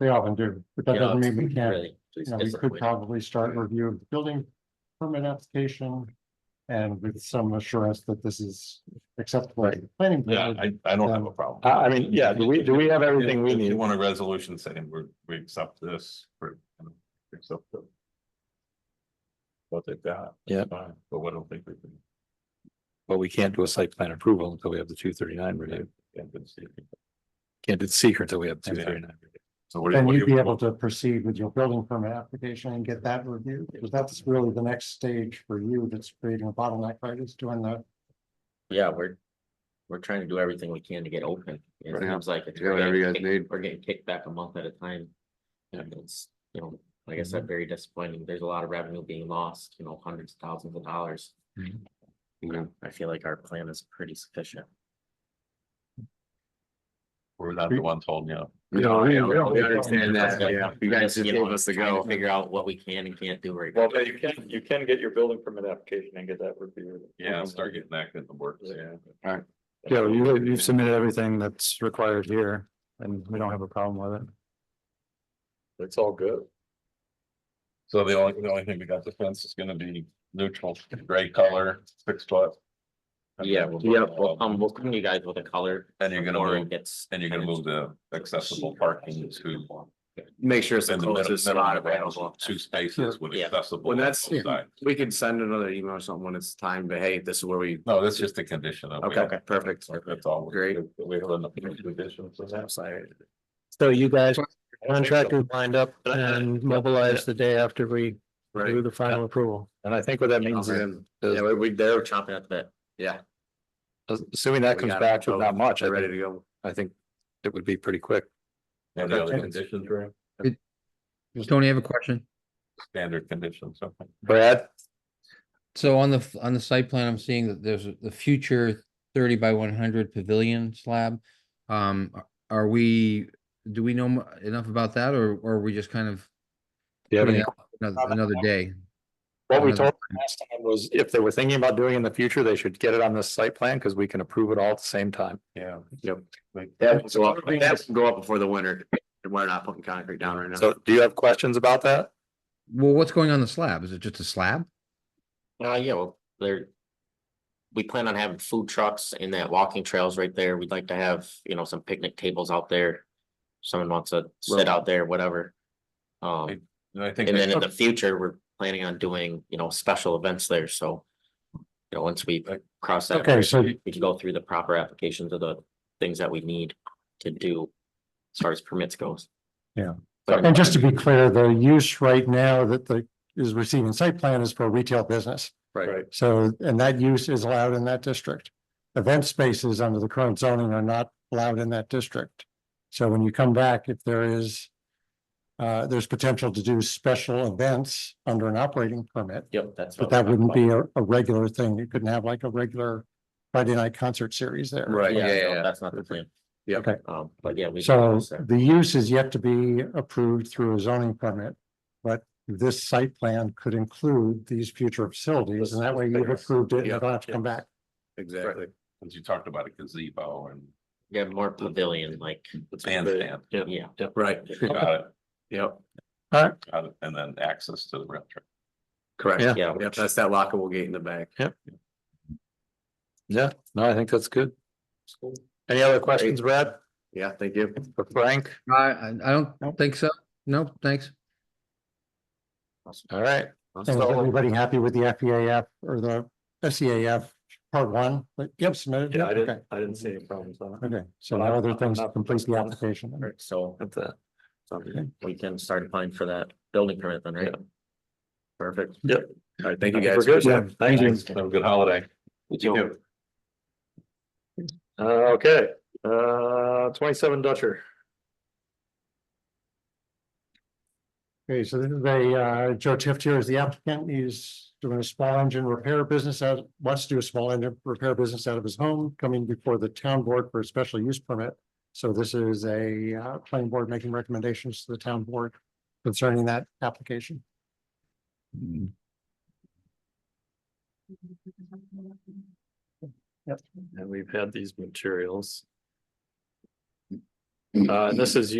They often do, but that Yeah, doesn't mean we it's can't, really- you it's know, we could disappointing. probably start a review of the building permit application. And with some assurance that this is acceptable to the planning. Yeah, board. I, I don't have a problem. I, I mean, yeah, do we, do we have everything we If need? You want a resolution saying we're, we accept this, for accept the. What they've got. Yeah. Fine, But I don't think we can. But we can't do a site plan approval until we have the two thirty-nine review. can't do it. Can't do secret until we have two Yeah. thirty-nine. So what do you? Then what do you'd be you- able to proceed with your building permit application and get that reviewed, because that's really the next stage for you that's creating a bottleneck, right, is doing the. Yeah, we're, we're trying to do everything we can to get open. It Right. seems like it's, Yeah, we're whatever you guys getting kicked- need. we're getting kicked back a month at a time. And it's, you know, like I said, very disappointing. There's a lot of revenue being lost, you know, hundreds of thousands of dollars. Um, Okay. I feel like our plan is pretty sufficient. We're not the ones holding you up. No, I know. we Yeah. understand that, Okay. yeah, you guys Just, just you know, gave us the trying to go. Figure out what we can and can't do right now. Well, but you can, you can get your building permit application and get that reviewed. Yeah, start getting that in the works, yeah. Yeah, you, you've submitted everything that's required here and we don't have a problem with it. It's all good. So the only, the only thing we got the fence is gonna be neutral, gray color, six foot. Yeah, we'll, Yeah. we'll, um, we'll come to you guys with a color. And you're gonna before it move- Gets. And you're gonna move the accessible parking to. Make sure it's the in the middle- closest middle spot of the house, available. Two spaces with Yeah. accessible. Well, on that's- both sides. We can send another email or something when it's time, but hey, this is where we, No, that's just a condition. of- okay, okay, perfect. That's all. Great. We have enough conditions of that. So you guys, contractors lined up and mobilized the day after we Right. the final approval. And I think what that means is, Yeah, we, we, they're, We're chopping at that. yeah. assuming that We comes got it. back with not much, I They're ready to think, go. I think it would be pretty quick. And the other conditions are Tony, I have a question. standard conditions, something. Brad? So on the, f- on the site plan, I'm seeing that there's a- the future thirty by one hundred pavilion slab. Um, a- are we, do we know mu- enough about that or, or are we just kind of Do you have putting any? it out another, another day? What we told them last time was if they were thinking about doing in the future, they should get it on this site plan because we can approve it all at the same time. Yeah. Yep. Like- That, so that will go up before the winter, and we're not putting concrete down right now. So do you have questions about that? Well, what's going on the slab? Is it just a slab? Uh, yeah, well, there. We plan on having food trucks in that walking trails right there. We'd like to have, you know, some picnic tables out there. Someone wants to sit Right. out there, whatever. Um, And I think, and then in the that- future, we're planning on doing, you know, special events there, so. You know, once we Okay. cross that, Okay, bridge, so we can go through the proper applications of the things that we need to do. As far as permits goes. Yeah. But And just to be clear, the use right now that the is receiving site plan is for retail business. Right. So, and that use is allowed in that district. Event spaces under the current zoning are not allowed in that district. So when you come back, if there is uh, there's potential to do special events under an operating permit, Yep, that's. but what we're that talking wouldn't about. be a, a regular thing. You couldn't have like a regular Friday night concert series there. Right, yeah, Yeah, yeah, no, yeah. that's not the plan. Yeah. Okay. Um, but yeah. we can So address that. the use is yet to be approved through a zoning permit, but this site plan could include these future facilities, and that way you've approved it, and you don't have to come back. Exactly. since you talked about a gazebo and Yeah, more pavilion, like, bandstand. Yep. yeah, Right, Got it, yep, got it, and then access to the rail trail. correct. Yeah. yeah, Yep, that's that lockable gate in the back. Yeah, no, I think that's good. Any other questions, Brad, Yeah, thank you. for Frank? I, I I don't think so. No, thanks. All right, And is So- everybody happy with the FEAF or the SEAF part one? But you have submitted? it? Okay. I didn't see any problems on Okay, so now other things to complete the application. right, so That's it. we can start applying for that building permit then, right? Perfect. All right, thank you I guys. think we're good. Yeah, thank you. Have a good holiday. You Uh, okay, uh, twenty-seven Dutcher. Okay, so this is a, uh, Joe Tift here is the applicant. He's doing a small engine repair business out, wants to do a small engine repair business out of his home, coming before the town board for a special use permit. So this is a, uh, planning board making recommendations to the town board concerning that application. And we've had these materials. Uh, this is